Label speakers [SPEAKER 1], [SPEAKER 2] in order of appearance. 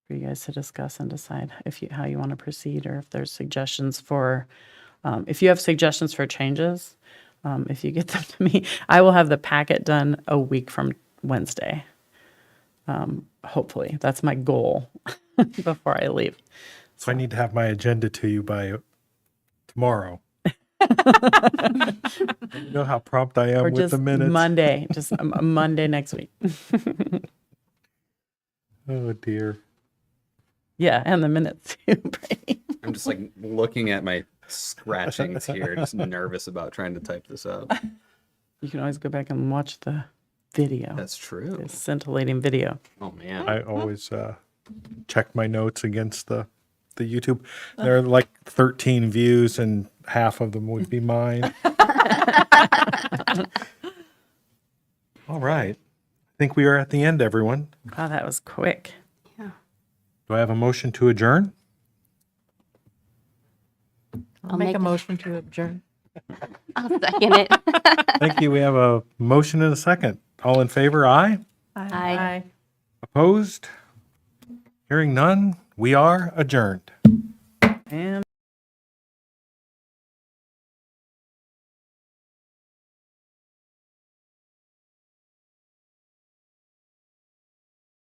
[SPEAKER 1] for you guys to discuss and decide if you, how you want to proceed or if there's suggestions for, um, if you have suggestions for changes, um, if you get them to me, I will have the packet done a week from Wednesday. Um, hopefully, that's my goal before I leave.
[SPEAKER 2] So I need to have my agenda to you by tomorrow. you know how prompt I am
[SPEAKER 1] Or
[SPEAKER 2] with
[SPEAKER 1] just
[SPEAKER 2] the minutes.
[SPEAKER 1] Monday, just a- a Monday next week.
[SPEAKER 2] oh dear.
[SPEAKER 1] Yeah, and the minutes too. Brady.
[SPEAKER 3] I'm just like looking at my scratchings here, just nervous about trying to type this up.
[SPEAKER 1] you can always go back and watch the video,
[SPEAKER 3] That's true.
[SPEAKER 1] the scintillating video.
[SPEAKER 3] Oh man.
[SPEAKER 2] I always uh, check my notes against the the YouTube. There are like 13 views, and half of them would be mine. All right. I think we are at the end, everyone.
[SPEAKER 1] Wow, that was quick.
[SPEAKER 2] Do I have a motion to adjourn?
[SPEAKER 4] I'll make a motion to adjourn.
[SPEAKER 5] I'll second it.
[SPEAKER 2] Thank you. We have a motion and a second. All in favor? Aye.
[SPEAKER 5] Aye.
[SPEAKER 2] Opposed? Hearing none, we are adjourned.
[SPEAKER 1] And